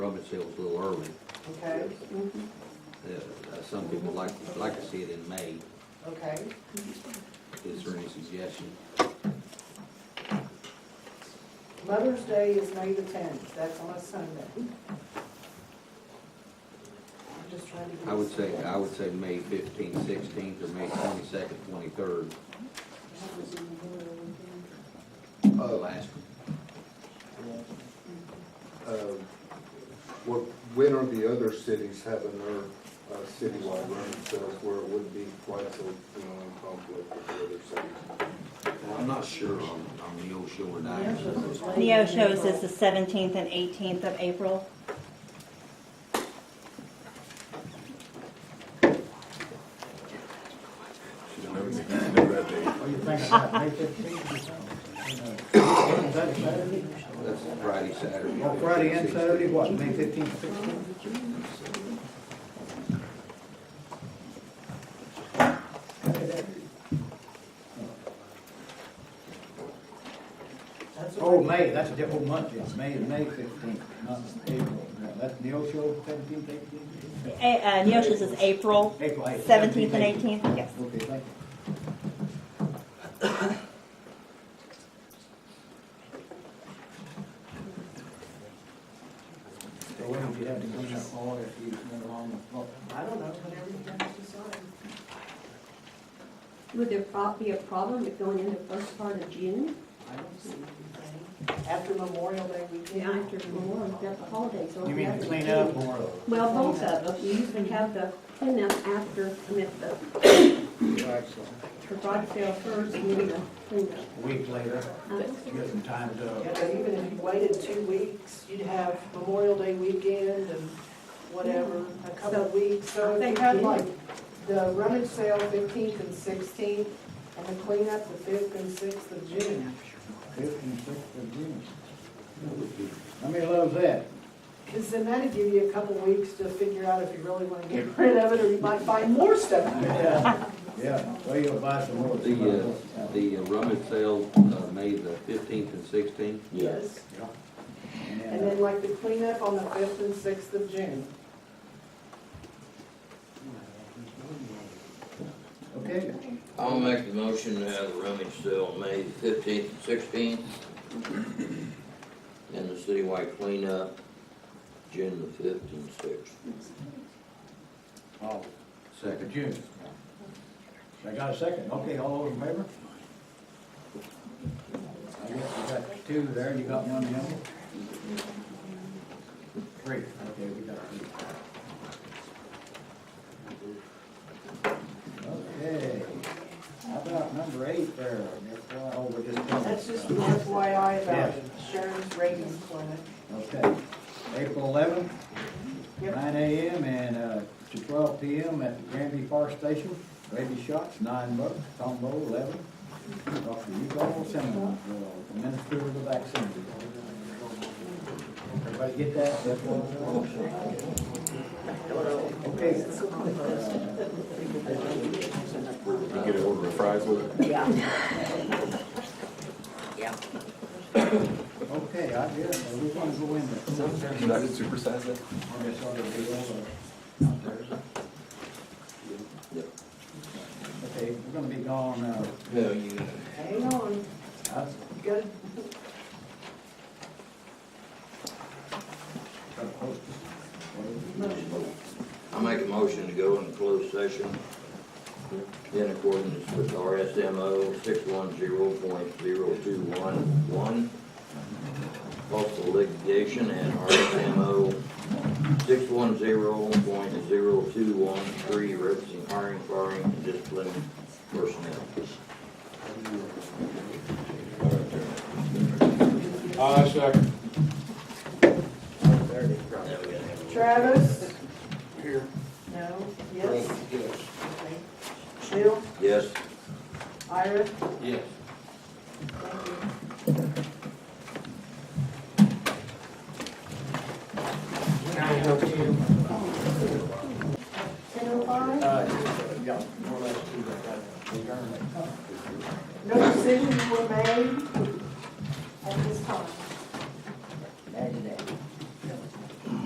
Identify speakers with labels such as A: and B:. A: would say it was a little early.
B: Okay,
A: Uh, uh, Some people like, like to see it in May.
B: okay.
A: Is there any suggestion?
B: Mother's Day is May the tenth, that's on a Sunday. I'm just trying to. get
A: I would
B: this-
A: say, I would say May fifteenth, sixteenth, or May twenty-second, twenty-third, the
C: Uh,
A: last.
C: uh, What, when are the other cities having their uh, citywide running sales where it would be quite so, you know, in conflict with the other cities?
A: Well, I'm not sure on, on the old shore
B: Yeah,
A: diet.
B: so it's late in
D: Neo shows
B: April.
D: is the seventeenth and eighteenth of April.
E: Well, you think about May fifteenth or something? Is that Saturday?
A: That's Friday, Saturday.
E: Well, Friday and
A: 15th,
E: Saturday, what, May fifteenth, sixteenth?
A: 16th.
B: That's what
E: Oh,
B: I-
E: May, that's a different month, yes, May, May fifteenth, not April. No, That's Neil Show, seventeenth, eighteenth?
D: A- uh, Neo shows is April
E: April eighth.
D: seventeenth and eighteenth, yes.
E: Okay, thank you. So when would you have to come in fall if you went along with, well,
B: I don't know, whenever you guys decide.
F: Would there prob- be a problem with going in the first part of June?
B: I don't see anything. After Memorial Day
F: Yeah,
B: weekend.
F: after Memorial, we've got the holidays. so
E: you mean to
F: after
E: clean
F: June.
E: up or?
F: Well, both of them. You usually have the cleanup after, I mean, the, the garage sale first and then the cleanup.
E: A week later,
F: Uh,
E: get some time
B: Yeah,
E: to,
B: but even if you waited two weeks, you'd have Memorial Day weekend and whatever, a couple of weeks. So if you had like the rummage sale fifteenth and sixteenth, and the cleanup the fifth and sixth of June.
E: fifth and sixth of June. Nobody loves that.
B: Because then that'd give you a couple of weeks to figure out if you really want to get rid of it, or you might find more stuff.
E: Yeah, yeah, well, you'll buy some more.
A: The, uh, the uh, rummage sale, uh, May the fifteenth and sixteenth.
B: Yes. And
E: And, uh,
B: then like the cleanup on the fifth and sixth of June.
E: Okay,
G: I'll make the motion to have a rummage sale May fifteenth and sixteenth. And the citywide cleanup June the fifth and sixth.
E: oh, the
A: Second.
E: June. I got a second, okay, all those in favor? I guess you got two there, and you got one the other? Three, okay, we got three. Okay, how about number eight there, that's why, oh, we're just. done.
B: That's just an FYI about
E: Yeah.
B: Sharon's ratings clinic.
E: Okay, April eleventh,
B: Yep.
E: nine AM and, uh, to twelve PM at the Granby Fire Station, Rabies Shots, nine bucks, combo eleven. Dr. Hugo Simmons, uh, Minister of the Vaccine. Everybody get that? That's what- Okay.
H: Get an order of fries with it.
E: Uh, Okay, I did, uh, we want to go in there.
H: Should I just supersize it?
E: I guess I'll just go over.
G: Yep.
E: Okay, we're gonna be gone, uh,
G: No, you,
B: Hang on,
E: I-
B: you gotta
G: I make a motion to go in closed session in accordance with RSMO six one zero point zero two one one. Possible litigation and RSMO six one zero point zero two one three referencing hiring, firing, and disciplining personnel.
H: Uh, second.
B: Travis? Here. No, yes? Yes. Bill,
G: Yes,
B: Ira,
A: Yes.
B: thank you.
F: Ten oh five?
B: oh
E: Uh, yeah.